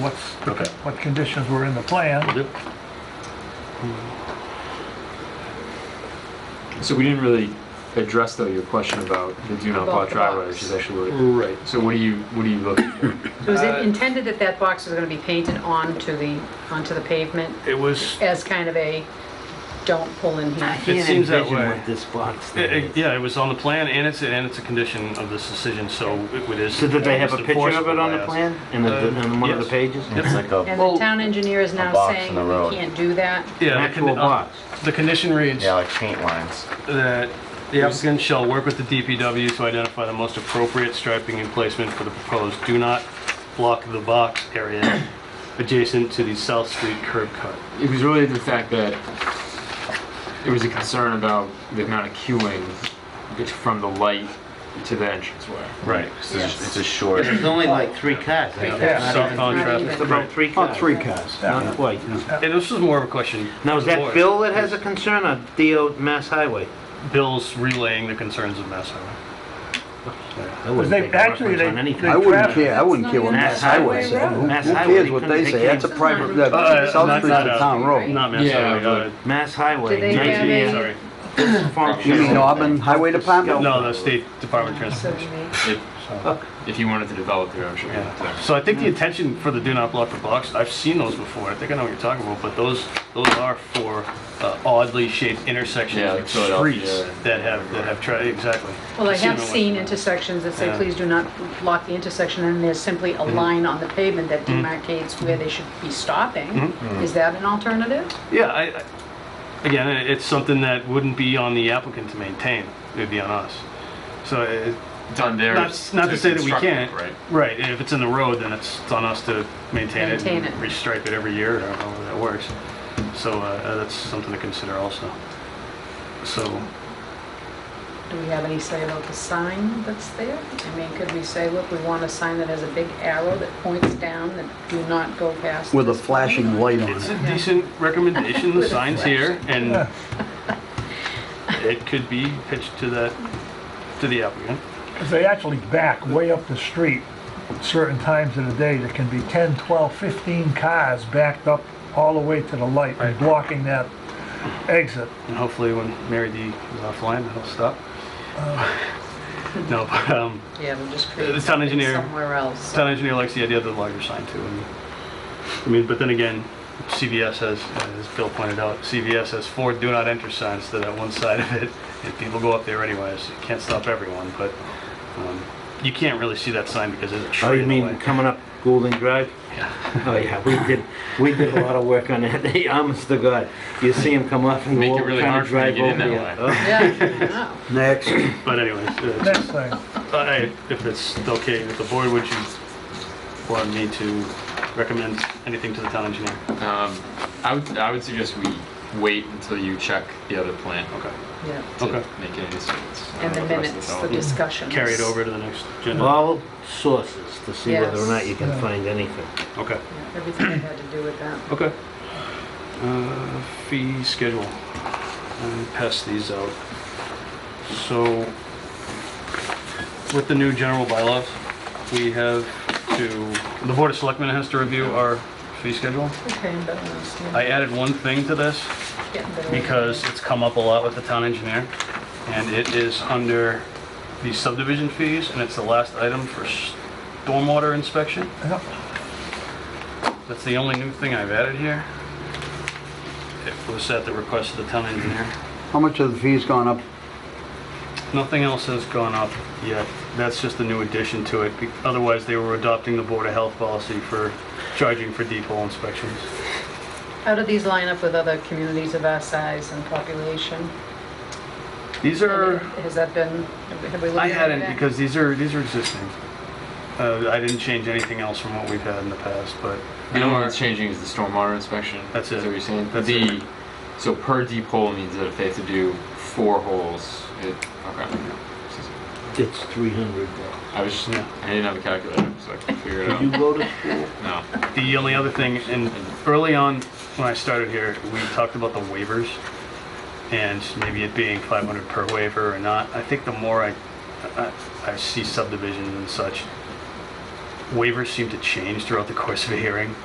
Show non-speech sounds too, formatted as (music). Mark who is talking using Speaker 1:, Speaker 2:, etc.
Speaker 1: what's, the-
Speaker 2: Okay.
Speaker 1: what conditions were in the plan.
Speaker 2: Yep.
Speaker 3: So we didn't really address though your question about the do not
Speaker 4: About
Speaker 3: block
Speaker 4: the
Speaker 3: driveway,
Speaker 4: box.
Speaker 3: which is actually what.
Speaker 2: Right.
Speaker 3: So what do you what do you look?
Speaker 4: It was
Speaker 2: Uh,
Speaker 4: intended that that box was going to be painted onto the, onto the pavement
Speaker 1: It was,
Speaker 4: as kind of a, don't pull in here.
Speaker 5: Can't
Speaker 2: seems that
Speaker 5: envision
Speaker 2: way.
Speaker 5: what this box
Speaker 2: It-
Speaker 5: thing
Speaker 2: it-
Speaker 5: is.
Speaker 2: Yeah, it was on the plan, and it's, and it's a condition of this decision, so it it is.
Speaker 5: So did they have a
Speaker 2: it's
Speaker 5: picture of
Speaker 2: enforceable
Speaker 5: it on
Speaker 2: by
Speaker 5: the
Speaker 2: us.
Speaker 5: plan, in the,
Speaker 2: Uh,
Speaker 5: in one of the
Speaker 2: yes.
Speaker 5: pages?
Speaker 2: Yep.
Speaker 4: And the town engineer is now
Speaker 6: box in
Speaker 4: saying
Speaker 6: the road.
Speaker 4: we can't do that.
Speaker 2: Yeah,
Speaker 5: An
Speaker 2: the
Speaker 5: actual
Speaker 2: condi- uh,
Speaker 5: box?
Speaker 2: The condition reads
Speaker 6: Yeah, like paint lines.
Speaker 2: that the applicant shall work with the DPW to identify the most appropriate striping and placement for the proposed do not block the box area (coughs) adjacent to the South Street curb cut.
Speaker 3: It was really the fact that there was a concern about the amount of queuing from the light to the entranceway.
Speaker 2: Right.
Speaker 6: It's a- It's a short.
Speaker 5: There's only like three cars. I think.
Speaker 1: Yeah.
Speaker 5: Not
Speaker 2: South
Speaker 5: even-
Speaker 2: on
Speaker 4: Not
Speaker 2: traffic.
Speaker 4: even.
Speaker 5: It's about three
Speaker 7: Oh,
Speaker 5: cars.
Speaker 7: three cars.
Speaker 5: Not quite, no.
Speaker 2: And this was more of a question.
Speaker 5: Now, is
Speaker 2: for the
Speaker 5: that
Speaker 2: board.
Speaker 5: Bill that has a concern or DO Mass Highway?
Speaker 2: Bill's relaying the concerns of Mass Highway.
Speaker 5: I wouldn't
Speaker 1: They-
Speaker 5: make a
Speaker 1: actually,
Speaker 5: reference
Speaker 1: they-
Speaker 5: on anything.
Speaker 1: they-
Speaker 7: I wouldn't care, I wouldn't care what
Speaker 5: Mass
Speaker 7: Mass Highway
Speaker 5: Highway
Speaker 7: said.
Speaker 5: Road.
Speaker 7: Who
Speaker 5: Mass
Speaker 7: who
Speaker 5: Highway,
Speaker 7: cares
Speaker 5: they
Speaker 7: what they
Speaker 5: couldn't-
Speaker 7: say?
Speaker 5: they
Speaker 7: That's a
Speaker 5: can't-
Speaker 7: private, that-
Speaker 2: Uh,
Speaker 7: South
Speaker 2: not-
Speaker 7: Street's a
Speaker 2: not, uh,
Speaker 7: town road.
Speaker 2: Not Mass
Speaker 3: Yeah,
Speaker 2: Highway, uh,
Speaker 5: Mass Highway.
Speaker 4: Do they
Speaker 5: nineteen-
Speaker 4: have a-
Speaker 2: sorry.
Speaker 7: You mean Auburn Highway Department?
Speaker 2: No, the State Department of
Speaker 4: So we
Speaker 2: Transportation.
Speaker 6: (laughs)
Speaker 4: may-
Speaker 3: If, if you wanted to develop your own, sure.
Speaker 2: Yeah. So I think the intention for the do not block the box, I've seen those before, I think I know what you're talking about, but those, those are for uh, oddly shaped intersections,
Speaker 3: Yeah,
Speaker 2: like
Speaker 3: like Philadelphia.
Speaker 2: streets that have, that have, tri- exactly.
Speaker 4: Well, I
Speaker 2: I've
Speaker 4: have
Speaker 2: them
Speaker 4: seen
Speaker 2: once.
Speaker 4: intersections that say,
Speaker 2: Yeah.
Speaker 4: please do not block the intersection, and there's simply
Speaker 6: Mm-hmm.
Speaker 4: a line on the pavement that demarcates where they should be stopping.
Speaker 6: Mm-hmm.
Speaker 4: Is that an alternative?
Speaker 2: Yeah, I, I- again, i- it's something that wouldn't be on the applicant to maintain, it'd be on us. So it,
Speaker 3: It's on there.
Speaker 2: not, not to say that we
Speaker 3: construct it,
Speaker 2: can't.
Speaker 3: Right.
Speaker 2: Right, and if it's in the road, then it's on us to maintain it and
Speaker 4: Maintain it.
Speaker 2: restripe it every year, I don't know how that works. So uh, uh, that's something to consider also. So,
Speaker 4: Do we have any say about the sign that's there? I mean, could we say, look, we want a sign that has a big arrow that points down that do not go past?
Speaker 7: With a
Speaker 4: this
Speaker 7: flashing light on
Speaker 2: It's
Speaker 7: it.
Speaker 2: a decent
Speaker 4: (laughs)
Speaker 2: recommendation, the sign's here, and it could be pitched to the, to the applicant.
Speaker 1: 'cause they actually back way up the street certain times of the day. There can be 10, 12, 15 cars backed up all the way to the light and blocking that exit.
Speaker 2: And hopefully when Mary D is offline, that'll stop. (laughs) No, but, um,
Speaker 4: Yeah, we'll just
Speaker 2: The
Speaker 4: create
Speaker 2: town
Speaker 4: something
Speaker 2: engineer-
Speaker 4: somewhere
Speaker 2: (laughs)
Speaker 4: else.
Speaker 2: town engineer likes the idea of the larger sign too. and- I mean, but then again, CVS has, as Bill pointed out, CVS has four do not enter signs to that one side of it, and people go up there anyways, you can't stop everyone, but, um, you can't really see that sign because there's a
Speaker 5: Oh,
Speaker 2: tree
Speaker 5: you
Speaker 2: in the
Speaker 5: mean
Speaker 2: way.
Speaker 5: coming up Goulding Drive?
Speaker 2: Yeah.
Speaker 5: Oh, yeah, we did, we did a lot of work on that, (laughs) Hey, honest to God. You see him come up and
Speaker 3: Make it
Speaker 5: go over,
Speaker 3: really
Speaker 5: kind
Speaker 3: hard
Speaker 5: of
Speaker 3: for you to
Speaker 5: drive
Speaker 3: get in
Speaker 5: over
Speaker 3: that
Speaker 5: you. Oh,
Speaker 4: Yeah, I know.
Speaker 7: Next.
Speaker 2: But anyways, uh,
Speaker 1: Next thing,
Speaker 2: I- if it's okay with the board, would you want me to recommend anything to the town engineer?
Speaker 3: Um, I would I would suggest we wait until you check the other plan
Speaker 2: Okay.
Speaker 4: Yeah.
Speaker 3: to
Speaker 2: Okay.
Speaker 3: make any decisions. I
Speaker 4: And the
Speaker 3: don't know what rest of
Speaker 4: minutes, the
Speaker 3: development-
Speaker 4: discussions.
Speaker 2: Carry it over to the next agenda?
Speaker 5: All sources to see whether or not you can
Speaker 1: Yes.
Speaker 5: find anything.
Speaker 2: Okay,
Speaker 4: Everything that had to do with that.
Speaker 2: okay. Uh, Fee schedule. I'll Pass these out. So with the new general bylaws, we have to, the Board of Selectmen has to review our fee schedule.
Speaker 4: Okay, but I understand.
Speaker 2: I added one thing to this.
Speaker 4: Getting better.
Speaker 2: because it's come up a lot with the town engineer, and it is under the subdivision fees, and it's the last item for stormwater inspection.
Speaker 1: Yep.
Speaker 2: That's the only new thing I've added here. It was at the request of the town engineer.
Speaker 7: How much of the fees gone up?
Speaker 2: Nothing else has gone up yet. That's just a new addition to it. Be- Otherwise, they were adopting the Board of Health policy for charging for deep hole inspections.
Speaker 4: How do these line up with other communities of our size and population?
Speaker 2: These are
Speaker 4: Has that been, have we looked at that?
Speaker 2: I hadn't because these are, these are existing. Uh, I didn't change anything else from what we've had in the past, but
Speaker 3: The only one that's changing is the stormwater inspection.
Speaker 2: That's
Speaker 3: Is
Speaker 2: it.
Speaker 3: that what you're saying?
Speaker 2: That's
Speaker 3: the,
Speaker 2: it.
Speaker 3: So per deep hole means that if they have to do four holes, it, okay.
Speaker 5: It's three hundred dollars.
Speaker 3: I was just,
Speaker 2: Yeah.
Speaker 3: I didn't have a calculator, so I couldn't figure it out.
Speaker 5: You go to school?
Speaker 3: No.
Speaker 2: the only other thing, and early on when I started here, we talked about the waivers and maybe it being 500 per waiver or not. I think the more I, I, I see subdivisions and such, waivers seem to change throughout the course of a hearing.